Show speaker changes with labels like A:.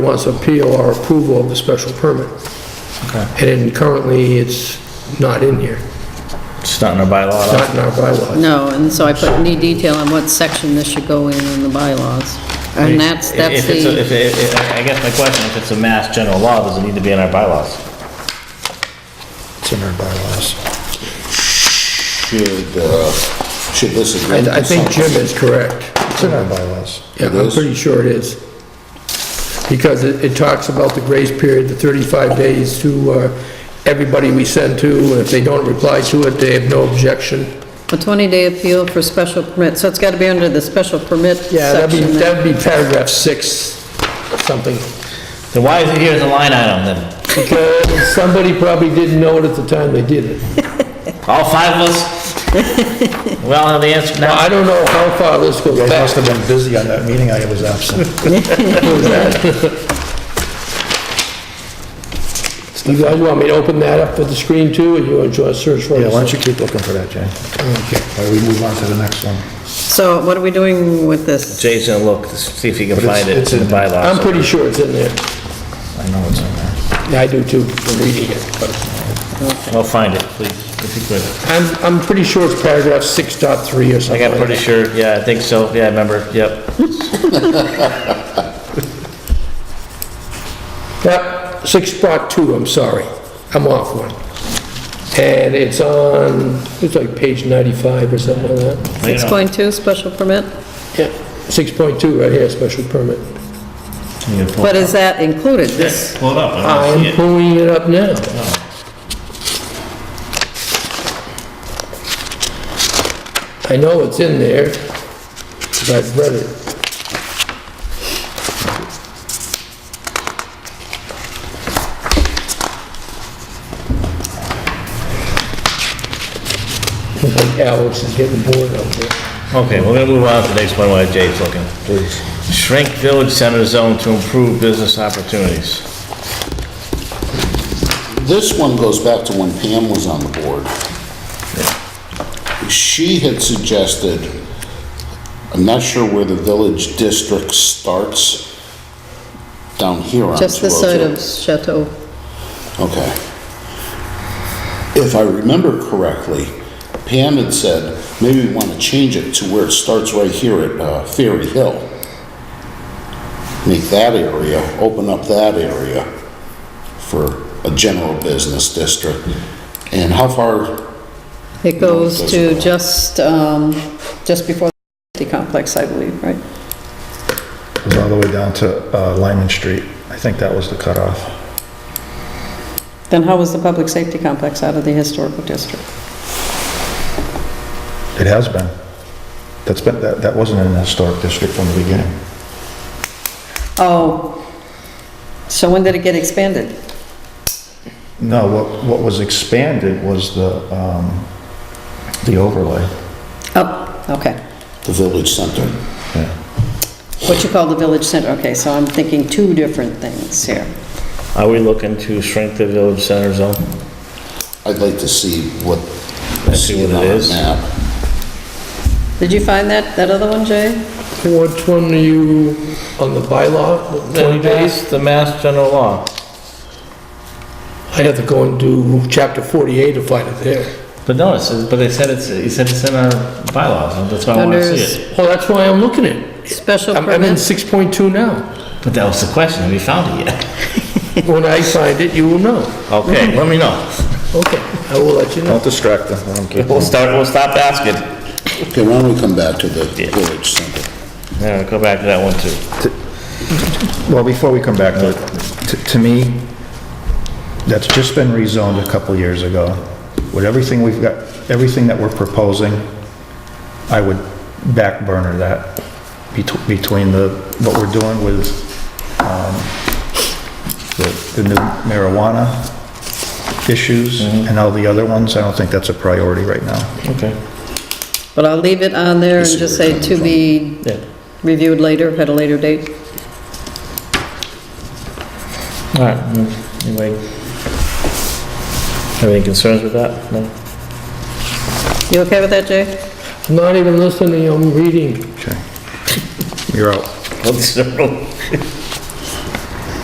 A: wants appeal or approval of the special permit.
B: Okay.
A: And currently, it's not in here,
B: It's not in our bylaw.
A: not in our bylaws.
C: No, and so I put any detail on what section this should go in in the bylaws. And that's, that's
B: If it's a- if
C: the,
B: it- if- I guess my question, if it's a mass general law, does it need to be in our bylaws?
D: It's in our bylaws.
E: Should, uh, should this agreement...
A: I I think Jim is correct.
D: It's in our bylaws.
A: Yeah,
E: It
A: I'm
E: is?
A: pretty sure it is. Because it, it talks about the grace period, the 35 days to uh, everybody we send to, and if they don't reply to it, they have no objection.
C: a 20-day appeal for special permit, so it's got to be under the special permit
A: Yeah, that'd be,
C: section. there.
A: that'd be paragraph six, something.
B: Then why is it here as a line item then?
A: Because somebody probably didn't know it at the time they did it.
B: All five of us? Well, have the answer
A: Now,
B: now.
A: I don't know how far this goes
D: You guys
A: back.
D: must have been busy on that meeting, I was absent.
A: You guys want me to open that up for the screen too, or you want to search for it?
D: Yeah, why don't you keep looking for that, Jay? Okay. Why don't we move on to the next one?
C: So what are we doing with this?
B: Jay's gonna look to see if he can
D: But it's-
B: find it
D: it's
B: in the
D: in there.
B: bylaws.
A: I'm pretty sure it's in there.
B: I know it's in there.
A: Yeah, I do too, from reading it. but
B: Well, find it, please, if you could.
A: I'm, I'm pretty sure it's paragraph 6.3 or
B: I
A: something.
B: got
A: like
B: pretty sure, yeah, I think so, yeah, I remember, yep.
A: Yep, six spot two, I'm sorry, I'm off one. And it's on, it's like page 95 or something like that.
C: 6.2, special permit?
A: Yeah, 6.2 right here, special permit.
B: You can pull
C: But
B: it
C: is that included, this?
B: pull it up, I don't see
A: I'm
B: it.
A: pulling it up now. I know it's in there, because I've read it. Like Alex is getting bored out there.
B: Okay, we're gonna move on to the next one while Jay's looking. Please. Shrink village center zone to improve business opportunities.
E: This one goes back to when Pam was on the board. She had suggested, I'm not sure where the village district starts, down here on 202.
C: Just this side of Chateau.
E: Okay. If I remember correctly, Pam had said, maybe we want to change it to where it starts right here at uh, Ferry Hill. Make that area, open up that area for a general business district. And how far,
C: It goes to just, um, just before the complex, I believe, right?
D: It was all the way down to uh, Lyman Street. I think that was the cutoff.
C: Then how was the public safety complex out of the historical district?
D: It has been. That's been, that, that wasn't in the historic district from the beginning.
C: Oh, so when did it get expanded?
D: No, what, what was expanded was the, um, the overlay.
C: Oh, okay.
E: the village center?
C: What you call the village center, okay, so I'm thinking two different things here.
B: Are we looking to shrink the village center zone?
E: I'd like to see what,
B: Let's see
E: see
B: what
E: it
B: it
E: on a
B: is.
E: map.
C: Did you find that, that other one, Jay?
A: Which one are you, on the bylaw, 20 days?
B: the mass general law.
A: I'd have to go and do chapter 48 to find it there.
B: But no, it says, but they said it's, he said it's in our bylaws, and that's why I wanna
C: Under
B: see it.
A: Well, that's why I'm looking at it.
C: Special
A: I'm I'm in
C: permit?
A: 6.2 now.
B: But that was the question, have you found it yet?
A: When I find it, you will know.
B: Okay, let me know.
A: Okay, I will let you know.
D: Don't distract them, let them keep
B: We'll start, we'll stop asking.
E: Okay, why don't we come back to the village center?
B: Yeah, go back to that one too.
D: Well, before we come back to it, to- to me, that's just been rezoned a couple years ago. With everything we've got, everything that we're proposing, I would back burner that bet- between the, what we're doing with um, the- the new marijuana issues and all the other ones. I don't think that's a priority right now.
B: Okay.
C: But I'll leave it on there and just say to be
B: Yeah.
C: reviewed later, at a later date.
B: All right, anyway. Have any concerns with that? No?
C: You okay with that, Jay?
A: I'm not even listening, I'm reading.
D: Okay. You're out.
B: Well, this is a real-